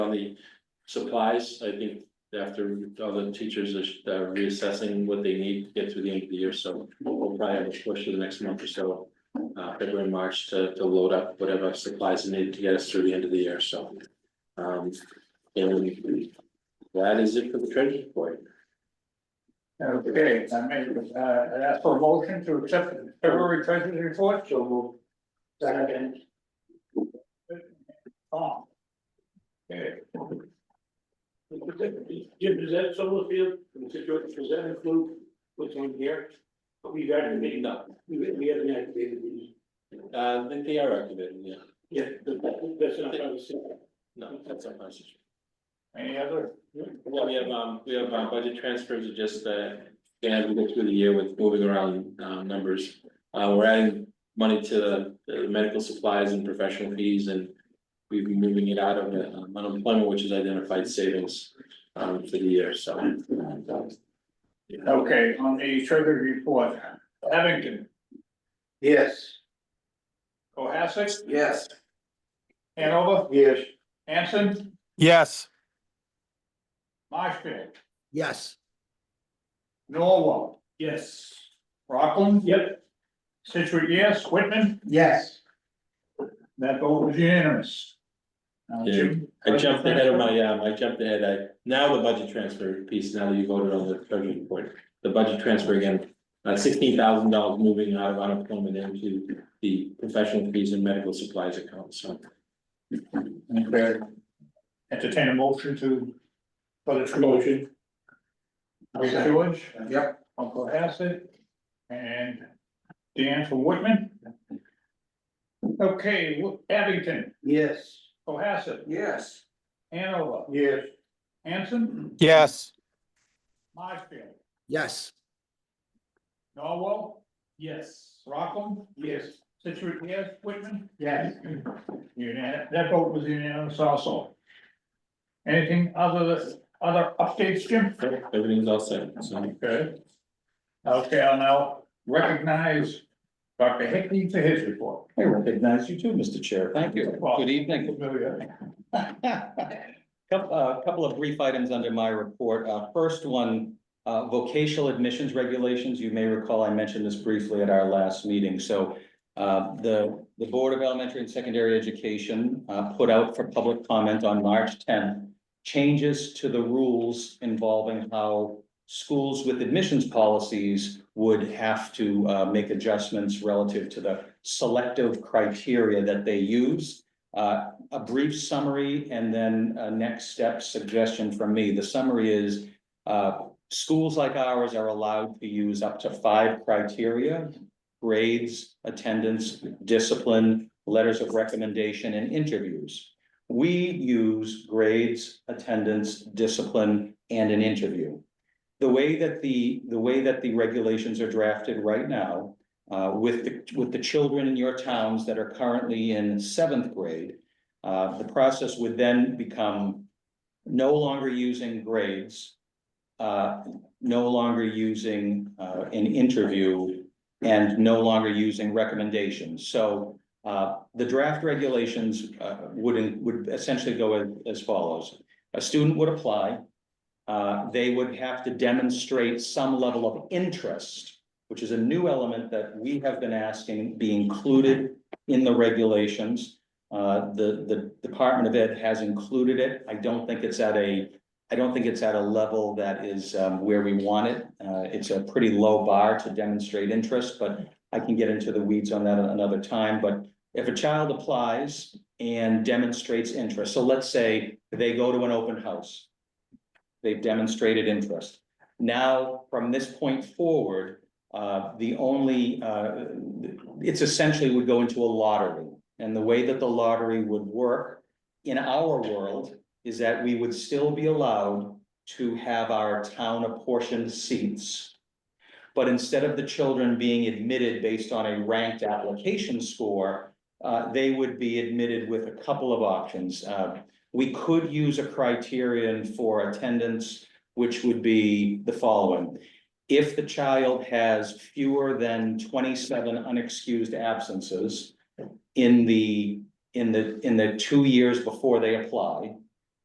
On the supplies, I think after all the teachers are are reassessing what they need to get through the end of the year, so we'll probably have a push for the next month or so. Uh, February, March to to load up whatever supplies are needed to get us through the end of the year, so. Um, and that is it for the treasury report. Okay, I made, uh, I ask for a motion to accept the February treasurer's report, so move. Second. Oh. Okay. Jim, does that solar field from Situate, does that include what's on here? We've activated, No, we we haven't activated these. uh, they- they are activated, yeah, Yeah, but that- that's not how it's. no, that's our message. Any other? Well, we have, um, we have, uh, budget transfers are just, uh, yeah, we go through the year with moving around, um, numbers. Uh, we're adding money to the- the medical supplies and professional fees and. We've been moving it out of uh, unemployment, which is identified savings, um, for the year, so. uh, Okay, on the treasurer's report, Abington, Yes. Cohasset, Yes. Hanover, Yes. Anson, Yes, Marshfield, Yes. Norwell, Yes. Rockland. Yep. Situate, yes, Whitman, Yes. that vote was unanimous. Now, Jim, I jumped ahead of my, um, I jumped ahead, I, now the budget transfer piece, now that you voted on the treasury report, the budget transfer again. Uh, sixteen thousand dollars moving out of unemployment into the professional fees and medical supplies account, so. Okay. Entertain a motion to. For the Motion. Mr. George? Yep. Uncle Hassett. And Dan from Whitman. Okay, Wo- Abington, Yes. Cohasset, Yes. Hanover, Yes. Hanson, yes, Marshfield, Yes. Norwell, Yes. Rockland, Yes. Situate, yes, Whitman. Yes. Unan- that vote was unanimous also. Anything other, other updates, Jim? Everything's all set, so. Okay. Okay, I'll now recognize Dr. Hickney for his report. I recognize you too, Mr. Chair. Thank you. Well- Good evening. Couple, a couple of brief items under my report. Uh, first one, uh, vocational admissions regulations. You may recall I mentioned this briefly at our last meeting. So uh, the, the Board of Elementary and Secondary Education, uh, put out for public comment on March tenth changes to the rules involving how schools with admissions policies would have to uh, make adjustments relative to the selective criteria that they use. Uh, A brief summary and then a next step suggestion from me. The summary is uh, schools like ours are allowed to use up to five criteria. Grades, attendance, discipline, letters of recommendation, and interviews. We use grades, attendance, discipline, and an interview. The way that the, the way that the regulations are drafted right now, uh, with the, with the children in your towns that are currently in seventh grade. Uh, the process would then become no longer using grades. Uh, no longer using, uh, an interview and no longer using recommendations. So, uh, the draft regulations, uh, would, would essentially go as, as follows. A student would apply. Uh, they would have to demonstrate some level of interest, which is a new element that we have been asking be included in the regulations. Uh, the, the Department of Ed has included it. I don't think it's at a, I don't think it's at a level that is, um, where we want it. Uh, it's a pretty low bar to demonstrate interest, but I can get into the weeds on that another time, but if a child applies and demonstrates interest, so let's say they go to an open house. They've demonstrated interest. Now, from this point forward, uh, the only, uh, it's essentially would go into a lottery. And the way that the lottery would work in our world is that we would still be allowed to have our town apportioned seats. But instead of the children being admitted based on a ranked application score, uh, they would be admitted with a couple of options. Uh, we could use a criterion for attendance, which would be the following. If the child has fewer than twenty-seven unexcused absences in the, in the, in the two years before they apply,